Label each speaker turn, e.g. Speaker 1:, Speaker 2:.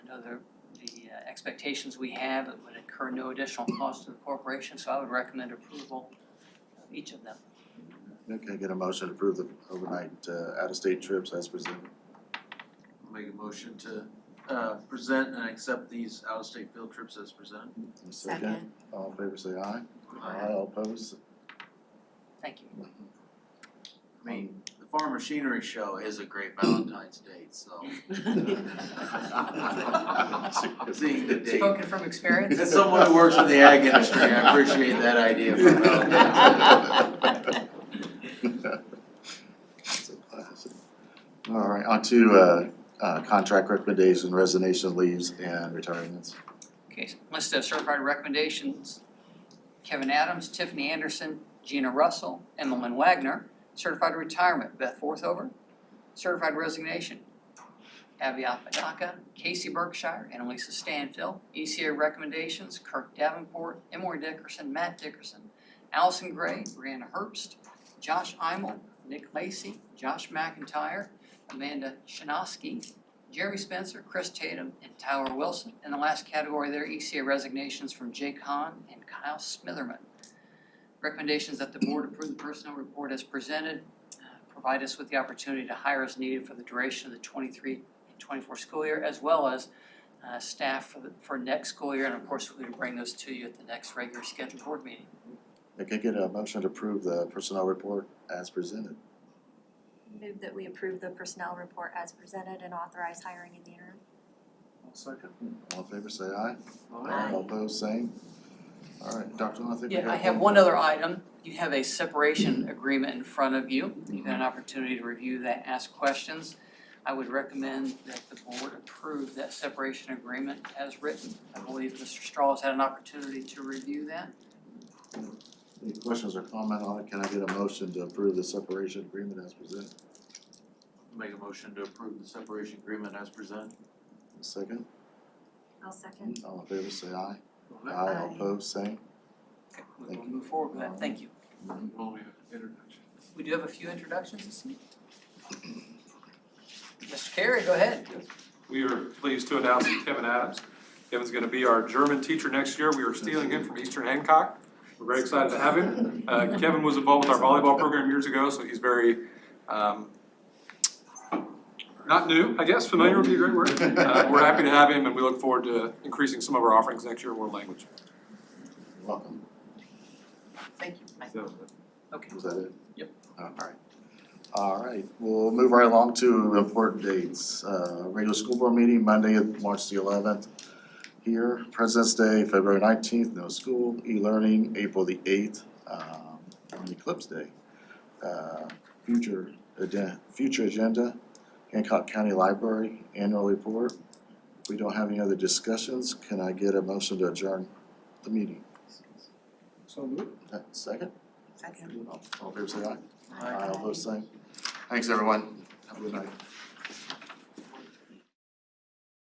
Speaker 1: know, the the uh, expectations we have, it would incur no additional cost to the corporation, so I would recommend approval of each of them.
Speaker 2: Can I get a motion to approve the overnight uh out-of-state trips as presented?
Speaker 3: Make a motion to uh present and accept these out-of-state field trips as presented.
Speaker 2: A All in favor say aye. All opposed?
Speaker 1: Thank you.
Speaker 3: I mean, the farm machinery show is a great Valentine's date, so seeing the date.
Speaker 1: Spoken from experience?
Speaker 3: As someone who works in the ag industry, I appreciate that idea for Valentine's Day.
Speaker 2: That's a classic. All right, on to uh uh contract recommendation, resignation leaves and retirements.
Speaker 1: Okay, so list of certified recommendations. Kevin Adams, Tiffany Anderson, Gina Russell, Emmeline Wagner. Certified retirement, Beth Forthover. Certified resignation, Abby Apodaca, Casey Berkshire, and Elisa Stanfill. ECA recommendations, Kirk Davenport, Emory Dickerson, Matt Dickerson, Allison Gray, Brianna Herbst, Josh Imel, Nick Lacy, Josh McIntyre, Amanda Shinosky, Jeremy Spencer, Chris Tatum, and Tyler Wilson. In the last category there, ECA resignations from Jake Hahn and Kyle Smitherman. Recommendations that the board approve the personnel report as presented. uh, Provide us with the opportunity to hire as needed for the duration of the twenty-three and twenty-four school year, as well as uh, staff for the, for next school year. And of course, we will bring those to you at the next regular scheduled board meeting.
Speaker 2: Can I get a motion to approve the personnel report as presented?
Speaker 4: Move that we approve the personnel report as presented and authorize hiring in the interim.
Speaker 2: Second. All in favor say aye.
Speaker 4: Aye.
Speaker 2: All opposed, same. All right, Dr. Lynn, I think we got
Speaker 1: Yeah, I have one other item. You have a separation agreement in front of you. You've had an opportunity to review that, ask questions. I would recommend that the board approve that separation agreement as written. I believe Mr. Straw has had an opportunity to review that.
Speaker 2: Any questions or comment on it? Can I get a motion to approve the separation agreement as presented?
Speaker 3: Make a motion to approve the separation agreement as presented.
Speaker 2: A Second,
Speaker 4: I'll second.
Speaker 2: all in favor say aye.
Speaker 4: Aye.
Speaker 2: All opposed, same.
Speaker 1: Okay, We will move forward with that. Thank you.
Speaker 3: Um, Well, we have introduction.
Speaker 1: We do have a few introductions this evening. Mr. Carey, go ahead.
Speaker 5: We are pleased to announce Kevin Adams. Kevin's gonna be our German teacher next year. We are stealing him from Eastern Hancock. We're very excited to have him. Uh, Kevin was involved with our volleyball program years ago, so he's very, um, not new, I guess, familiar would be a great word. Uh, we're happy to have him and we look forward to increasing some of our offerings next year in world language.
Speaker 2: Welcome,
Speaker 1: Thank you. Mike. Okay.
Speaker 2: was that it?
Speaker 1: Yep.
Speaker 2: All right. All right, we'll move right along to important dates. Uh, regular school board meeting, Monday, March the eleventh. Here, President's Day, February nineteenth, no school, e-learning, April the eighth, um, and Eclipse Day. Uh, future agenda, future agenda, Hancock County Library, annual report. If we don't have any other discussions, can I get a motion to adjourn the meeting? Uh, Second? Second. All in favor, say aye. Aye, all those same. Thanks, everyone. Have a good night.